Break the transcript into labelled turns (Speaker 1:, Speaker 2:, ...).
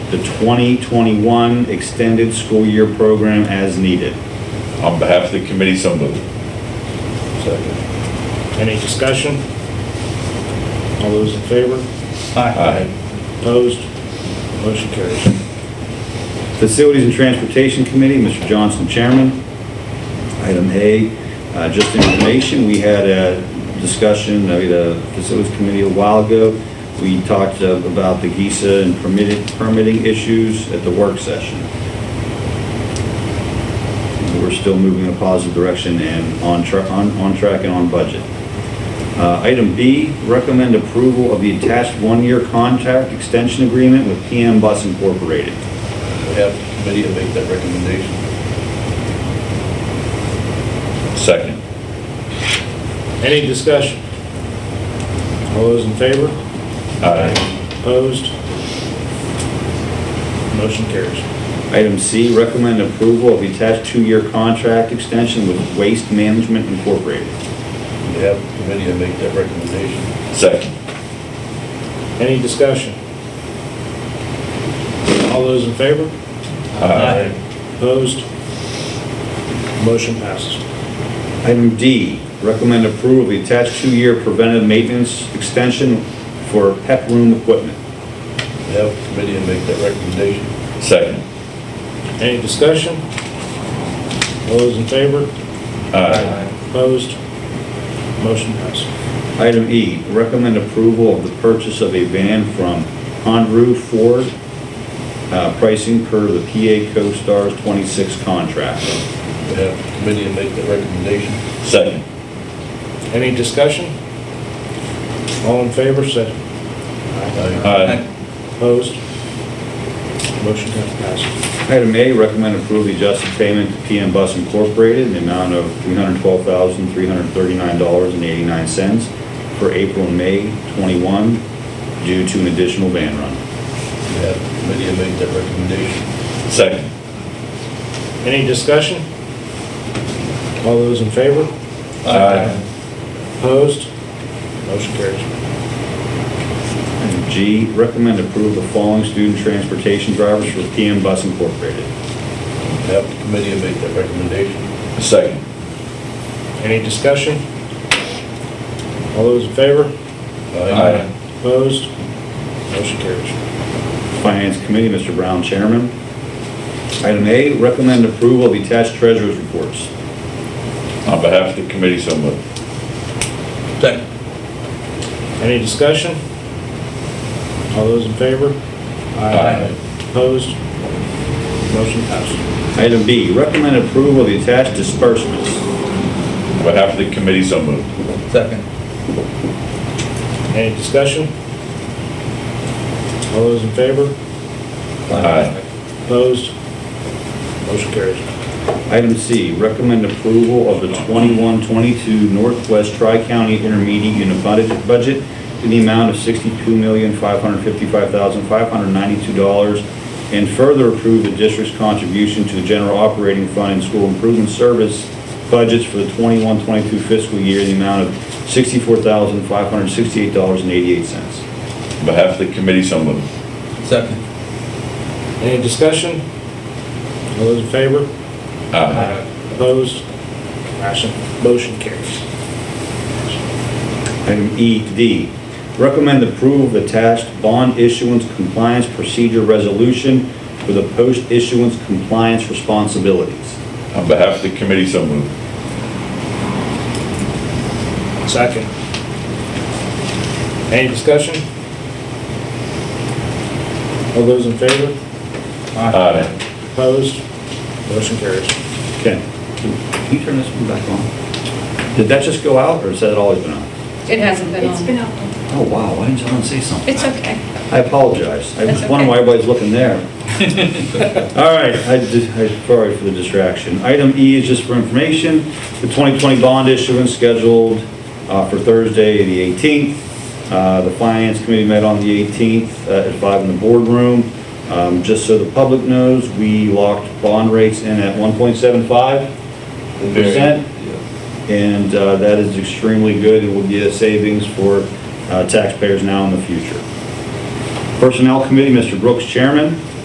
Speaker 1: the 2021 extended school year program as needed.
Speaker 2: On behalf of the committee, so moved. Second.
Speaker 3: Any discussion? All those in favor?
Speaker 2: Aye.
Speaker 3: Opposed? Motion carries.
Speaker 1: Facilities and Transportation Committee, Mr. Johnson, Chairman. Item A, uh, just information, we had a discussion, uh, the Facilities Committee a while ago. We talked uh, about the GISA and permitted, permitting issues at the work session. We're still moving in a positive direction and on track, on, on track and on budget. Uh, Item B, recommend approval of the attached one-year contract extension agreement with PM Bus Incorporated.
Speaker 4: Have the committee to make that recommendation.
Speaker 2: Second.
Speaker 3: Any discussion? All those in favor?
Speaker 2: Aye.
Speaker 3: Opposed? Motion carries.
Speaker 1: Item C, recommend approval of the attached two-year contract extension with Waste Management Incorporated.
Speaker 4: Have the committee to make that recommendation.
Speaker 2: Second.
Speaker 3: Any discussion? All those in favor?
Speaker 2: Aye.
Speaker 3: Opposed? Motion passes.
Speaker 1: Item D, recommend approval of the attached two-year preventive maintenance extension for pep room equipment.
Speaker 4: Have the committee to make that recommendation.
Speaker 2: Second.
Speaker 3: Any discussion? All those in favor?
Speaker 2: Aye.
Speaker 3: Opposed? Motion passes.
Speaker 1: Item E, recommend approval of the purchase of a van from Honru Ford, uh, pricing per the PA CoStar's 26 contract.
Speaker 4: Have the committee to make that recommendation.
Speaker 2: Second.
Speaker 3: Any discussion? All in favor, say aye.
Speaker 2: Uh, Aye.
Speaker 3: Opposed? Motion passes.
Speaker 1: Item A, recommend approval of the adjusted payment to PM Bus Incorporated in the amount of $312,339.89 for April and May 21 due to an additional van run.
Speaker 4: Have the committee to make that recommendation.
Speaker 2: Second.
Speaker 3: Any discussion? All those in favor?
Speaker 2: Aye.
Speaker 3: Opposed? Motion carries.
Speaker 1: Item G, recommend approval of the following student transportation drivers for PM Bus Incorporated.
Speaker 4: Have the committee to make that recommendation.
Speaker 2: Second.
Speaker 3: Any discussion? All those in favor?
Speaker 2: Aye.
Speaker 3: Opposed? Motion carries.
Speaker 1: Finance Committee, Mr. Brown, Chairman. Item A, recommend approval of the attached treasurer's reports.
Speaker 2: On behalf of the committee, so moved.
Speaker 4: Second.
Speaker 3: Any discussion? All those in favor?
Speaker 2: Aye.
Speaker 3: Opposed? Motion passes.
Speaker 1: Item B, recommend approval of the attached disbursements.
Speaker 2: On behalf of the committee, so moved.
Speaker 4: Second.
Speaker 3: Any discussion? All those in favor?
Speaker 2: Aye.
Speaker 3: Opposed? Motion carries.
Speaker 1: Item C, recommend approval of the 21-22 Northwest Tri-County Intermediate Unit Budget- Budget in the amount of $62,555,592, and further approve the district's contribution to the general operating fund and school improvement service budgets for the 21-22 fiscal year in the amount of $64,568.88.
Speaker 2: On behalf of the committee, so moved.
Speaker 4: Second.
Speaker 3: Any discussion? All those in favor?
Speaker 2: Aye.
Speaker 3: Opposed? Motion- Motion carries.
Speaker 1: Item E to D, recommend approval of attached bond issuance compliance procedure resolution for the post-issuance compliance responsibilities.
Speaker 2: On behalf of the committee, so moved.
Speaker 3: Second. Any discussion? All those in favor?
Speaker 2: Aye.
Speaker 3: Opposed? Motion carries.
Speaker 1: Okay. Can you turn this one back on? Did that just go out, or has that always been on?
Speaker 5: It hasn't been
Speaker 6: It's been
Speaker 5: on.
Speaker 6: on.
Speaker 1: Oh, wow, why didn't someone say something?
Speaker 5: It's okay.
Speaker 1: I apologize. I was
Speaker 5: That's
Speaker 1: wondering why
Speaker 5: okay.
Speaker 1: everybody's looking there. All right, I, di- I- sorry for the distraction. Item E is just for information, the 2020 bond issuance scheduled uh, for Thursday, the 18th. Uh, The Finance Committee met on the 18th uh, at 5 in the boardroom. Um, Just so the public knows, we locked bond rates in at 1.75 percent. And uh, that is extremely good, it will be a savings for uh, taxpayers now in the future. Personnel Committee, Mr. Brooks, Chairman.